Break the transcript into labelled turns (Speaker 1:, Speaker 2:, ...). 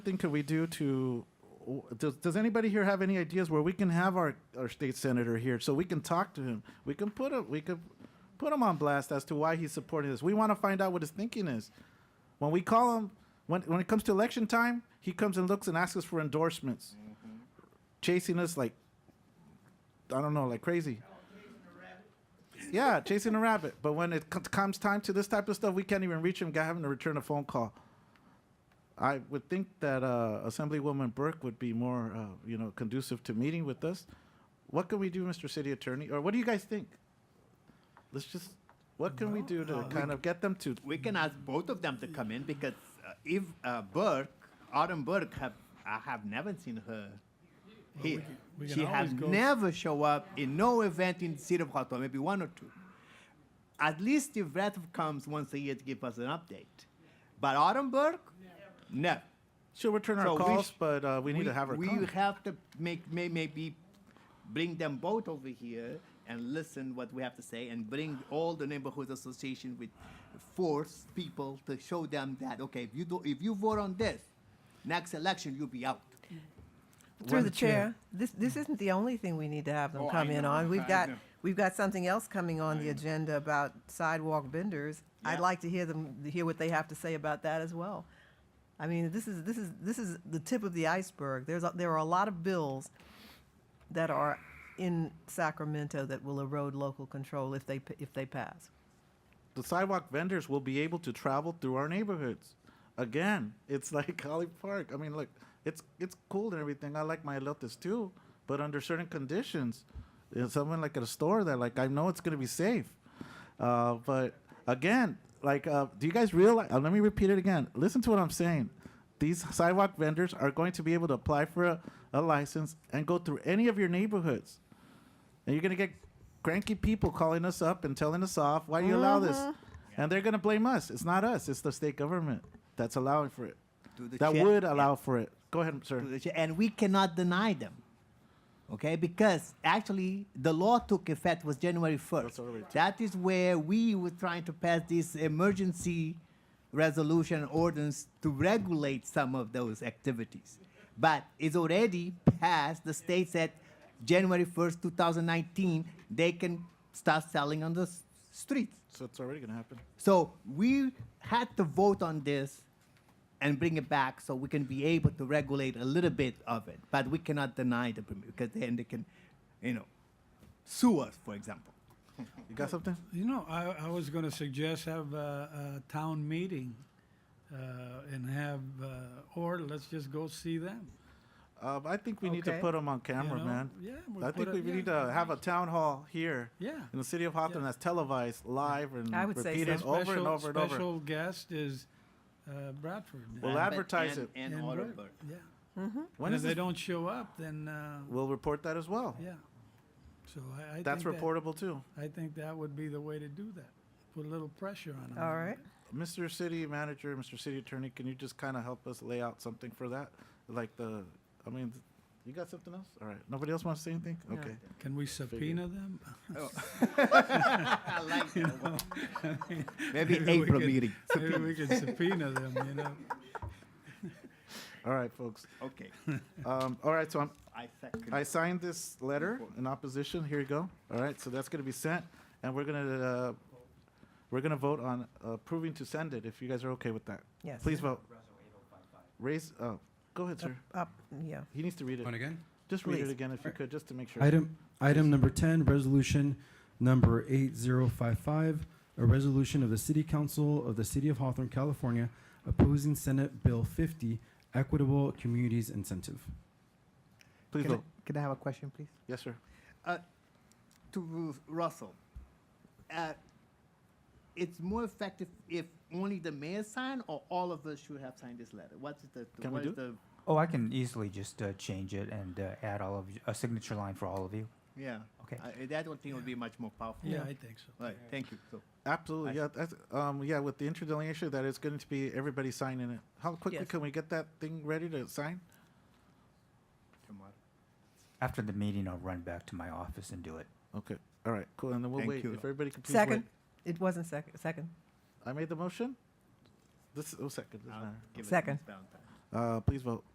Speaker 1: thing could we do to? Does, does anybody here have any ideas where we can have our, our state senator here so we can talk to him? We can put him we could put him on blast as to why he's supporting this. We want to find out what his thinking is. When we call him when when it comes to election time, he comes and looks and asks us for endorsements, chasing us like I don't know, like crazy. Yeah, chasing a rabbit. But when it co- comes time to this type of stuff, we can't even reach him. Guy having to return a phone call. I would think that uh, Assemblywoman Burke would be more, uh, you know, conducive to meeting with us. What can we do, Mr. City Attorney, or what do you guys think? Let's just, what can we do to
Speaker 2: uh,
Speaker 1: kind of get them to?
Speaker 2: We can ask both of them to come in because uh, if uh, Burke, Autumn Burke, have I have never seen her here.
Speaker 3: we can
Speaker 2: she has
Speaker 3: always go-
Speaker 2: never show up in no event in the city of Hawthorne, maybe one or two. At least if Radcliffe comes once a year to give us an update. But Autumn Burke, no.
Speaker 1: She'll return our
Speaker 2: So we
Speaker 1: calls,
Speaker 2: sh-
Speaker 1: but uh, we need to have her
Speaker 2: we
Speaker 1: come.
Speaker 2: have to make may, maybe bring them both over here and listen what we have to say and bring all the neighborhood association with force people to show them that okay if you do if you vote on this next election you'll be out
Speaker 4: Through the
Speaker 3: Madam Chair.
Speaker 4: chair, this, this isn't the only thing we need to have them
Speaker 2: Oh, I
Speaker 4: come in
Speaker 2: know.
Speaker 4: on.
Speaker 2: I
Speaker 4: We've got,
Speaker 2: know.
Speaker 4: we've got something else coming on the agenda about sidewalk benders. I'd
Speaker 2: Yeah.
Speaker 4: like to hear them, hear what they have to say about that as well. I mean, this is, this is, this is the tip of the iceberg. There's, a- there are a lot of bills that are in Sacramento that will erode local control if they, p- if they pass.
Speaker 1: the sidewalk vendors will be able to travel through our neighborhoods. Again, it's like Holly Park. I mean, look, it's it's cool and everything. I like my elotes too, but under certain conditions, you know, someone like at a store that like I know it's gonna be safe. Uh, but again, like, uh, do you guys realize? Uh, let me repeat it again. Listen to what I'm saying. These sidewalk vendors are going to be able to apply for a, a license and go through any of your neighborhoods. And you're gonna get cranky people calling us up and telling us off. Why do you allow this?
Speaker 3: Uh-huh.
Speaker 1: And they're gonna blame us. It's not us. It's the state government that's allowing for it.
Speaker 2: To the
Speaker 1: That
Speaker 2: chair.
Speaker 1: would allow for it. Go ahead, sir.
Speaker 2: to the cha- and we cannot deny them. Okay, because actually the law took effect was January first.
Speaker 1: already-
Speaker 2: That is where we were trying to pass this emergency resolution ordinance to regulate some of those activities. But it's already passed. The state said January first, two thousand nineteen, they can start selling on the s- streets.
Speaker 1: So it's already gonna happen.
Speaker 2: So we had to vote on this and bring it back so we can be able to regulate a little bit of it. But we cannot deny the permit because then they can, you know, sue us, for example.
Speaker 1: You got something?
Speaker 3: You know, I, I was going to suggest have a, a town meeting uh, and have, uh, or let's just go see them.
Speaker 1: Um, I think we need to
Speaker 4: Okay.
Speaker 1: put them on camera,
Speaker 3: know,
Speaker 1: man.
Speaker 3: yeah, we
Speaker 1: I
Speaker 3: put
Speaker 1: think
Speaker 3: a-
Speaker 1: we
Speaker 3: yeah.
Speaker 1: need to have a town hall here.
Speaker 3: Yeah.
Speaker 1: In the city of Hawthorne,
Speaker 3: Yeah.
Speaker 1: that's televised live and
Speaker 4: I would say
Speaker 1: repeated
Speaker 4: so.
Speaker 1: over and
Speaker 3: Special-
Speaker 1: over and over.
Speaker 3: Special guest is uh, Bradford.
Speaker 1: Well,
Speaker 3: And-
Speaker 1: advertise it.
Speaker 2: And,
Speaker 3: and
Speaker 2: all
Speaker 3: Brad-
Speaker 2: over.
Speaker 3: Yeah.
Speaker 1: When
Speaker 3: And
Speaker 1: is
Speaker 3: if they
Speaker 1: this?
Speaker 3: don't show up, then, uh,
Speaker 1: We'll report that as well.
Speaker 3: yeah. So I, I think
Speaker 1: That's
Speaker 3: that-
Speaker 1: reportable too.
Speaker 3: I think that would be the way to do that. Put a little pressure on
Speaker 2: Mm-hmm.
Speaker 3: them.
Speaker 4: All right?
Speaker 1: Mr. City Manager, Mr. City Attorney, can you just kind of help us lay out something for that? Like the, I mean, th- you got something else? All right. Nobody else wants to say anything? Okay.
Speaker 3: Can we subpoena them?
Speaker 2: I like that one. Maybe
Speaker 3: Maybe we
Speaker 2: April
Speaker 3: could-
Speaker 2: meeting.
Speaker 3: Maybe we can subpoena them, you know?
Speaker 1: All right, folks.
Speaker 2: Okay.
Speaker 1: Um, all right. So I'm,
Speaker 2: I second.
Speaker 1: I signed this letter in opposition. Here you go. All right. So that's going to be sent and we're going to, uh, we're going to vote on approving to send it if you guys are okay with that.
Speaker 4: Yes.
Speaker 1: Please vote. Raise, oh, go ahead, sir.
Speaker 4: Up, yeah.
Speaker 1: He needs to read it.
Speaker 5: On again?
Speaker 1: Just read it
Speaker 4: Please.
Speaker 1: again if you could, just to make sure.
Speaker 5: Item, item number ten, resolution number eight zero five five, a resolution of the City Council of the City of Hawthorne, California, opposing Senate Bill fifty, equitable communities incentive.
Speaker 1: Please
Speaker 2: Can I,
Speaker 1: vote.
Speaker 2: can I have a question, please?
Speaker 1: Yes, sir.
Speaker 2: to Ru- Russell, uh, it's more effective if only the mayor sign or all of us should have signed this letter. What's the, the
Speaker 1: Can we
Speaker 2: what
Speaker 1: do
Speaker 2: is the
Speaker 6: Oh, I can easily just uh, change it and uh, add all of you, a signature line for all of you.
Speaker 2: yeah?
Speaker 6: Okay.
Speaker 2: I, that one thing would be much more powerful.
Speaker 3: Yeah, I think so.
Speaker 2: Right. Thank you. So
Speaker 1: Absolutely, yeah. That's, um, yeah, with the interdelineation, that is going to be everybody signing it. How quickly
Speaker 4: Yes.
Speaker 1: can we get that thing ready to sign?
Speaker 2: tomorrow.
Speaker 6: After the meeting, I'll run back to my office and do it.
Speaker 1: Okay, all right, cool. And then we'll
Speaker 2: Thank
Speaker 1: wait.
Speaker 2: you.
Speaker 1: If everybody could please
Speaker 4: Second?
Speaker 1: wait.
Speaker 4: It wasn't second, second.
Speaker 1: I made the motion. This oh second. Doesn't
Speaker 2: I'll
Speaker 1: matter.
Speaker 2: give it to
Speaker 4: Second.
Speaker 2: Ms. Valentine.
Speaker 1: Uh, please vote.